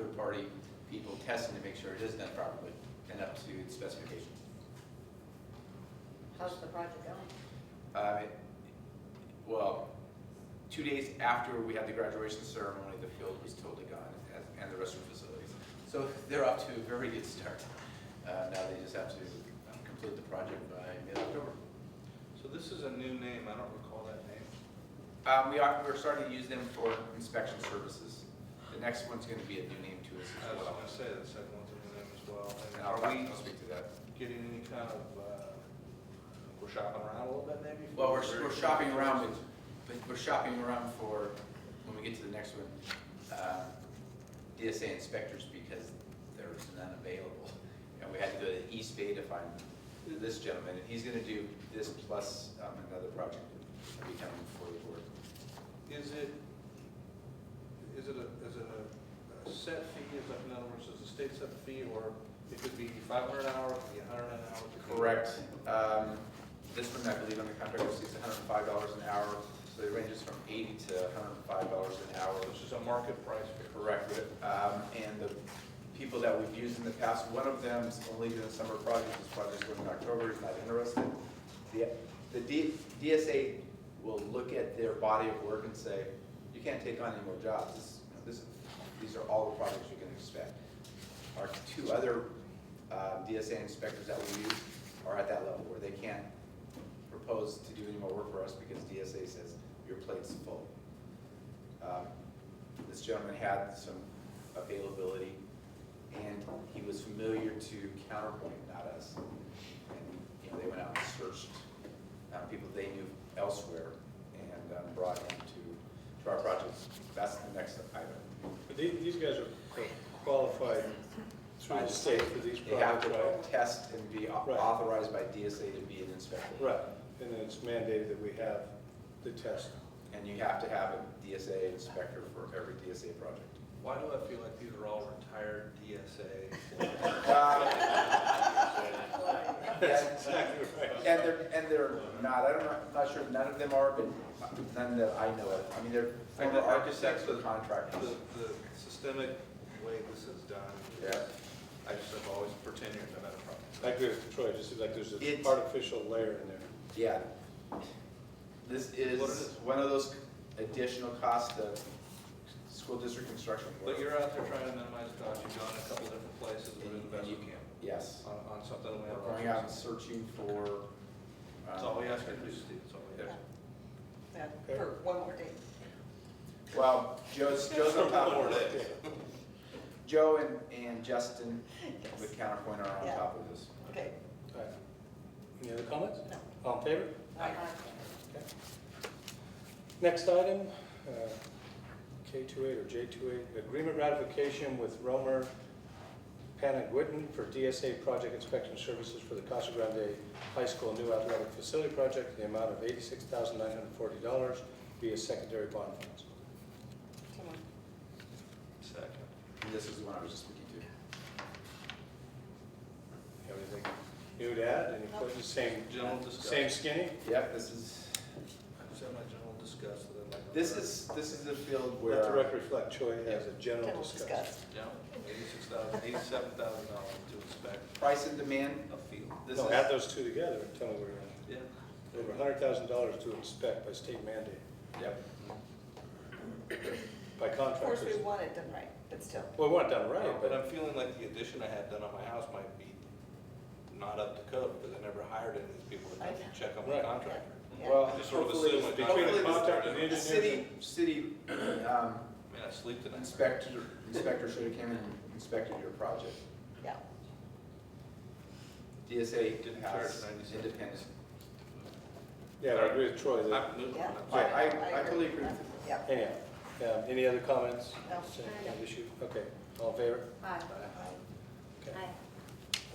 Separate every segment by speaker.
Speaker 1: third-party people testing to make sure it is done properly and up to the specifications.
Speaker 2: How's the project going?
Speaker 1: Uh, it- Well, two days after we had the graduation ceremony, the field was totally gone as- and the restroom facilities. So they're off to a very good start. Uh, Now they just have to um, complete the project by mid-October.
Speaker 3: So this is a new name, I don't recall that name.
Speaker 1: Um, We are, we're starting to use them for inspection services. The next one's going to be a new name to us
Speaker 3: I
Speaker 1: as
Speaker 3: was
Speaker 1: well.
Speaker 3: gonna say, the second one's a new name as well. And
Speaker 1: And I'll,
Speaker 3: are we
Speaker 1: I'll speak to that.
Speaker 3: getting any kind of, uh, we're shopping around a little bit maybe?
Speaker 1: Well, we're, we're shopping around with, but we're shopping around for, when we get to the next one, uh, DSA inspectors because there's none available. And we had to go to East Bay to find this gentleman, and he's gonna do this plus um, another project that'll be coming before the board.
Speaker 3: Is it, is it a, is it a a set fee, is that, in other words, is the state set fee, or it could be five hundred an hour, it could be a hundred an hour? it could be-
Speaker 1: Correct. Um, This one, I believe, on the contract was six hundred and five dollars an hour, so it ranges from eighty to hundred and five dollars an hour, which
Speaker 3: This is a market price fee.
Speaker 1: correct it. Um, And the people that we've used in the past, one of them's only doing summer projects, his project's going in October, he's not interested. The the D- DSA will look at their body of work and say, you can't take on any more jobs. This- this- These are all the projects you can expect. Our two other uh, DSA inspectors that we use are at that level where they can't propose to do any more work for us because DSA says your plate's full. Um, This gentleman had some availability, and he was familiar to Counterpoint, not us. And, you know, they went out and searched uh, people they knew elsewhere and um, brought him to, to our project. That's the next item.
Speaker 4: But the- These guys are qualified through the state for these
Speaker 1: They have
Speaker 4: products,
Speaker 1: to
Speaker 4: right?
Speaker 1: test and be au-
Speaker 4: Right.
Speaker 1: authorized by DSA to be an inspector.
Speaker 4: Right, and then it's mandated that we have the test.
Speaker 1: And you have to have a DSA inspector for every DSA project.
Speaker 3: Why do I feel like these are all retired DSA?
Speaker 1: Uh, yeah,
Speaker 4: Exactly right.
Speaker 1: And they're, and they're not, I don't know, I'm not sure, none of them are, but none that I know of. I mean, they're former
Speaker 3: I just
Speaker 1: architects
Speaker 3: think
Speaker 1: or
Speaker 3: the-
Speaker 1: contractors.
Speaker 3: The the systemic way this is done,
Speaker 1: Yeah.
Speaker 3: I just have always, for 10 years, I've had a problem.
Speaker 4: I agree with Troy, just seems like there's an
Speaker 1: It's-
Speaker 4: artificial layer in there.
Speaker 1: Yeah. This
Speaker 3: What is
Speaker 1: is
Speaker 3: it?
Speaker 1: one of those additional costs of school district construction work.
Speaker 3: But you're out there trying to minimize costs, you've gone a couple different places
Speaker 1: And you-
Speaker 3: within the
Speaker 1: and
Speaker 3: best
Speaker 1: you
Speaker 3: you can
Speaker 1: Yes.
Speaker 3: on, on something that
Speaker 1: We're
Speaker 3: we have.
Speaker 1: going uh, out and searching for. um,
Speaker 3: That's all we ask you to do, Steve, that's all we ask.
Speaker 2: That- For one more day.
Speaker 1: Well, Joe's, Joe's on top of
Speaker 3: One more
Speaker 1: it. Joe and, and Justin with
Speaker 2: Yes.
Speaker 1: Counterpoint are on
Speaker 2: Yeah.
Speaker 1: top of this.
Speaker 2: Okay.
Speaker 4: All right. Any other comments?
Speaker 2: No.
Speaker 4: All in favor?
Speaker 2: Aye.
Speaker 4: Okay. Next item, uh, K28 or J28, agreement ratification with Romer Panaguitin for DSA project inspection services for the Casa Grande High School new athletic facility project in the amount of $86,940 via secondary bond funds.
Speaker 2: Come on.
Speaker 3: Second.
Speaker 1: And this is the one I was just speaking to.
Speaker 4: Have Anything new to add? Any questions? Same,
Speaker 3: General discussion.
Speaker 4: same skinny?
Speaker 1: Yep, this is,
Speaker 3: I just have my general discuss with it like.
Speaker 1: this is, this is the field
Speaker 4: Let the
Speaker 1: where,
Speaker 4: record reflect, Choi has a general
Speaker 2: Then we'll
Speaker 4: discussion.
Speaker 2: discuss.
Speaker 3: Yeah, eighty-six thousand, eighty-seven thousand dollars to inspect
Speaker 1: price and demand,
Speaker 3: a field.
Speaker 1: this
Speaker 4: No, add
Speaker 1: is,
Speaker 4: those two together and tell me where
Speaker 3: Yeah.
Speaker 4: you're at. Over $100,000 to inspect by state mandate.
Speaker 1: yep.
Speaker 4: by
Speaker 2: Of course, we
Speaker 4: contractors.
Speaker 2: want it done right, but still.
Speaker 4: Well, we want it done
Speaker 3: Right,
Speaker 4: right,
Speaker 3: Um, but
Speaker 4: but
Speaker 3: I'm feeling like the addition I had done on my house might be not up to code, because I never hired any of these people to
Speaker 2: I know.
Speaker 3: check on my
Speaker 4: Right.
Speaker 3: contractor.
Speaker 2: Yeah.
Speaker 1: Well,
Speaker 3: I just sort of
Speaker 1: hopefully,
Speaker 3: assume "Oh, I got
Speaker 4: between
Speaker 3: it.
Speaker 4: the contractor and
Speaker 1: the
Speaker 4: engineers
Speaker 1: city, city um,
Speaker 3: I mean, I sleep tonight.
Speaker 1: inspector, inspector should have came and inspected your project.
Speaker 2: Yeah.
Speaker 1: DSA
Speaker 3: Didn't
Speaker 1: has
Speaker 3: charge 97.
Speaker 1: independent.
Speaker 4: yeah, I agree with Troy. that-
Speaker 3: I'm moving.
Speaker 2: Yeah.
Speaker 3: I'm
Speaker 1: I,
Speaker 3: sorry.
Speaker 1: I, I totally agree with you.
Speaker 2: Yeah.
Speaker 4: Anyhow, um, any other comments?
Speaker 2: No.
Speaker 4: Same kind of issue? Okay, all in favor?
Speaker 2: Aye.
Speaker 4: Okay.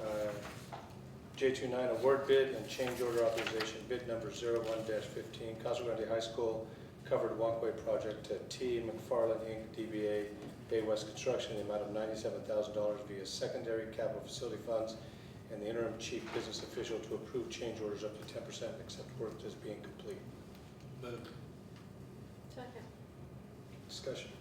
Speaker 4: Uh, J29, award bid and change order authorization, bid number 01-15, Casa Grande High School covered walkway project to T. McFarland Inc., DBA Bay West Construction, in the amount of $97,000 via secondary capital facility funds, and the interim chief business official to approve change orders up to 10% except work as being complete.
Speaker 3: Move.
Speaker 5: Second.
Speaker 4: Discussion.